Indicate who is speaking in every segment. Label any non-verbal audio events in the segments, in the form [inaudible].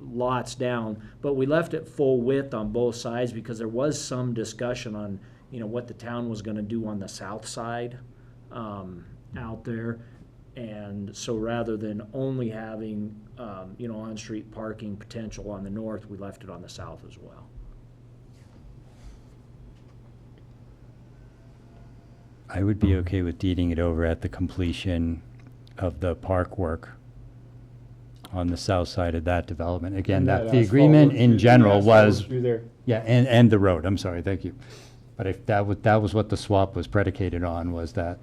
Speaker 1: lots down, but we left it full width on both sides because there was some discussion on, you know, what the town was gonna do on the south side, um, out there. And so rather than only having, um, you know, on-street parking potential on the north, we left it on the south as well.
Speaker 2: I would
Speaker 3: Hmm.
Speaker 2: be okay with deeding it over at the completion of the park work on the south side of that development. Again,
Speaker 3: And
Speaker 2: that, the
Speaker 3: asphalt
Speaker 2: agreement
Speaker 3: road
Speaker 2: in
Speaker 3: through-
Speaker 2: general
Speaker 3: asphalt road
Speaker 2: was,
Speaker 3: Through there,
Speaker 2: yeah, and, and the road, I'm sorry, thank you. But if that was, that was what the swap was predicated on, was that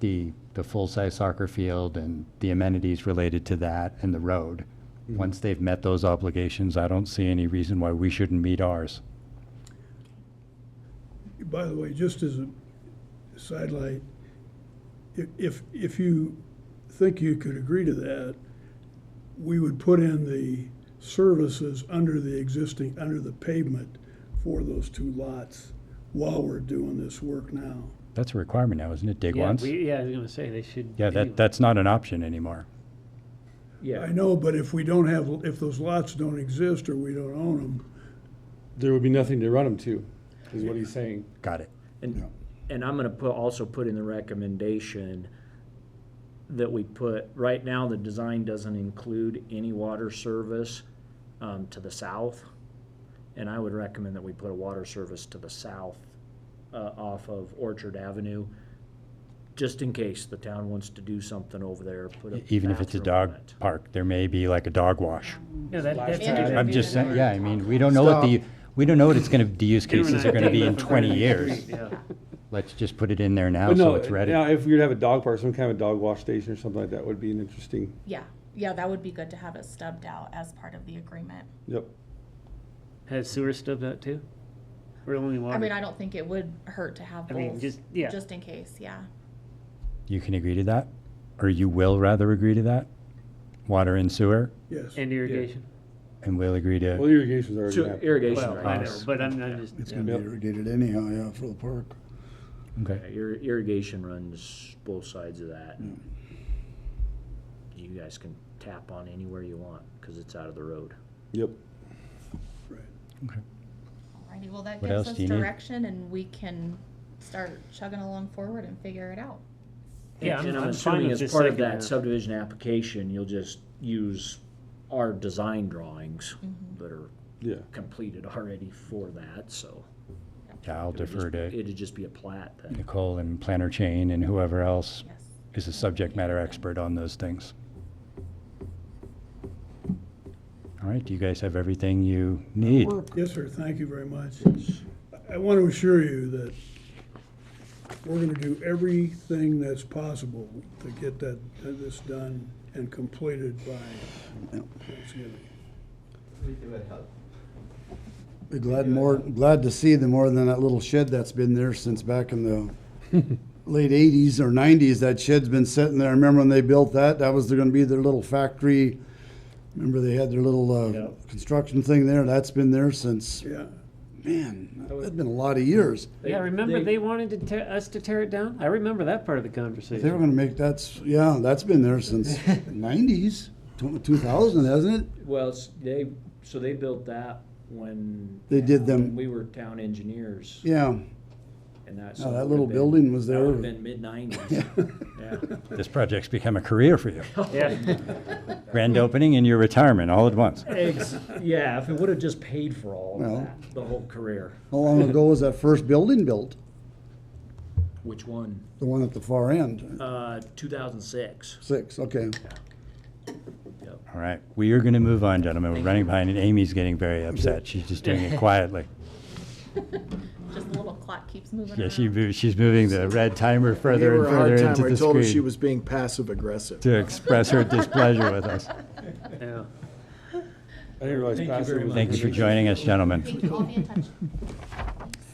Speaker 2: the, the full-size soccer field and the amenities related to that and the road.
Speaker 3: Hmm.
Speaker 2: Once they've met those obligations, I don't see any reason why we shouldn't meet ours.
Speaker 4: By the way, just as a sidelight, i- if, if you think you could agree to that, we would put in the services under the existing, under the pavement for those two lots while we're doing this work now.
Speaker 2: That's a requirement now, isn't it? Dig
Speaker 5: Yeah,
Speaker 2: once?
Speaker 5: we- Yeah, I was gonna say, they should.
Speaker 2: Yeah, that,
Speaker 5: anyway.
Speaker 2: that's not an option anymore.
Speaker 1: Yeah.
Speaker 4: I know, but if we don't have, if those lots don't exist or we don't own them,
Speaker 3: there would be nothing to run them to, is what he's saying.
Speaker 2: Got it.
Speaker 1: And, and I'm gonna put, also put in the recommendation that we put, right now, the design doesn't include any water service, um, to the south. And I would recommend that we put a water service to the south, uh, off of Orchard Avenue, just in case the town wants to do something over there, put a
Speaker 2: Even if it's a
Speaker 1: bathroom on
Speaker 2: dog
Speaker 1: it.
Speaker 2: park, there may be like a dog wash.
Speaker 5: Yeah, that-
Speaker 3: Last
Speaker 5: that's
Speaker 3: time.
Speaker 5: under-
Speaker 2: I'm just saying, yeah, I mean, we don't know what the, we don't know what it's gonna, the use
Speaker 5: Cameron
Speaker 2: cases
Speaker 5: and I
Speaker 2: are gonna be
Speaker 5: talked
Speaker 2: in
Speaker 5: about
Speaker 2: twenty
Speaker 5: that.
Speaker 2: years.
Speaker 5: Yeah.
Speaker 2: Let's just put it in there now
Speaker 3: But
Speaker 2: so
Speaker 3: no,
Speaker 2: it's ready.
Speaker 3: yeah, if we were to have a dog park, some kind of dog wash station or something like that would be an interesting,
Speaker 6: Yeah, yeah, that would be good to have it stubbed out as part of the agreement.
Speaker 3: yep.
Speaker 5: Has sewer stubbed out too? Or only water?
Speaker 6: I mean, I don't think it would hurt to have
Speaker 5: I mean,
Speaker 6: both,
Speaker 5: just- yeah.
Speaker 6: just in case, yeah.
Speaker 2: You can agree to that? Or you will rather agree to that? Water and sewer,
Speaker 4: yes.
Speaker 5: And irrigation?
Speaker 2: and we'll agree
Speaker 3: Well,
Speaker 2: to,
Speaker 3: irrigation's already
Speaker 1: So
Speaker 3: happening.
Speaker 1: irrigation
Speaker 5: Well, I
Speaker 1: right
Speaker 5: know,
Speaker 2: Us.
Speaker 5: but I'm, I'm just,
Speaker 7: It's
Speaker 5: yeah.
Speaker 7: gonna be
Speaker 3: Yep.
Speaker 7: irrigated anyhow, yeah, for the park.
Speaker 2: okay.
Speaker 1: Yeah, ir- irrigation runs both sides of that.
Speaker 7: Mm.
Speaker 1: You guys can tap on anywhere you want, cause it's out of the road.
Speaker 3: Yep.
Speaker 6: Alrighty, well, that
Speaker 2: What
Speaker 6: gives
Speaker 2: else
Speaker 6: us
Speaker 2: do you need?
Speaker 6: direction and we can start chugging along forward and figure it out.
Speaker 5: Yeah, I'm-
Speaker 1: And I'm
Speaker 5: I'm fine
Speaker 1: assuming
Speaker 5: with
Speaker 1: as
Speaker 5: this
Speaker 1: part of
Speaker 5: second
Speaker 1: that
Speaker 5: half.
Speaker 1: subdivision application, you'll just use our design drawings that are
Speaker 3: Yeah.
Speaker 1: completed already for that, so.
Speaker 2: Yeah, I'll
Speaker 1: it would
Speaker 2: defer
Speaker 1: just-
Speaker 2: to
Speaker 1: It'd just be a plat then.
Speaker 2: Nicole and Planner Chain and whoever else
Speaker 6: Yes.
Speaker 2: is a subject matter expert on those things. All right, do you guys have everything you need?
Speaker 4: Yes, sir, thank you very much. I want to assure you that we're gonna do everything that's possible to get that, this done and completed by Thanksgiving.
Speaker 7: Be glad more, glad to see them more than that little shed that's been there since back in the late eighties or nineties. That shed's been sitting there. I remember when they built that, that was gonna be their little factory. Remember they had their little,
Speaker 1: Yeah.
Speaker 7: uh, construction thing there. That's been there since,
Speaker 4: Yeah,
Speaker 7: man, that's been a lot of years.
Speaker 5: Yeah, remember
Speaker 1: they-
Speaker 5: they wanted to tear, us to tear it down? I remember that part of the
Speaker 7: They were
Speaker 5: conversation.
Speaker 7: gonna make, that's, yeah, that's been there since nineties, two thousand, hasn't it?
Speaker 1: Well, s- they, so they built that when.
Speaker 7: They did them-
Speaker 1: when We were town engineers
Speaker 7: Yeah.
Speaker 1: and that.
Speaker 7: Oh, that little building was there.
Speaker 1: That would've been mid
Speaker 7: [laughs]
Speaker 1: nineties, yeah.
Speaker 2: This project's become a career for you.
Speaker 5: Yeah,
Speaker 2: Grand opening and your retirement all at once.
Speaker 5: [laughs]
Speaker 1: Ex- Yeah, if it would've just paid for all of
Speaker 7: Well.
Speaker 1: that, the whole career.
Speaker 7: How long ago was that first building built?
Speaker 1: Which one?
Speaker 7: The one at the far end?
Speaker 1: Uh, two thousand six.
Speaker 7: Six, okay.
Speaker 2: All right, we are going to move on, gentlemen. We're running behind, and Amy's getting very upset. She's just doing it quietly.
Speaker 6: Just the little clock keeps moving
Speaker 2: Yeah,
Speaker 6: around.
Speaker 2: she move, she's moving the red timer
Speaker 8: Gave
Speaker 2: further
Speaker 8: her
Speaker 2: and
Speaker 8: a hard
Speaker 2: further
Speaker 8: time.
Speaker 2: into
Speaker 8: I
Speaker 2: the
Speaker 8: told her she
Speaker 2: screen
Speaker 8: was being passive aggressive.
Speaker 2: to express her displeasure with us.
Speaker 5: yeah.
Speaker 3: I didn't realize.
Speaker 1: Thank you
Speaker 3: Bassett
Speaker 1: very much.
Speaker 3: was-
Speaker 2: Thank you for joining us, gentlemen.
Speaker 6: Thank you, I'll be in touch.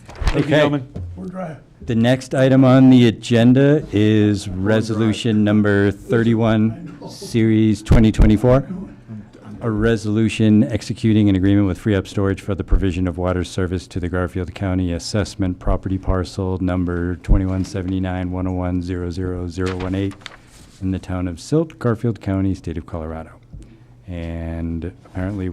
Speaker 3: Thank you,
Speaker 2: Okay,
Speaker 3: gentlemen.
Speaker 4: we're dry.
Speaker 2: the next item on the agenda is resolution number 31, series 2024. A resolution executing an agreement with Free Up Storage for the provision of water service to the Garfield County Assessment Property Parcel Number 2179-101-00018 in the town of Silt, Garfield County, state of Colorado. And apparently,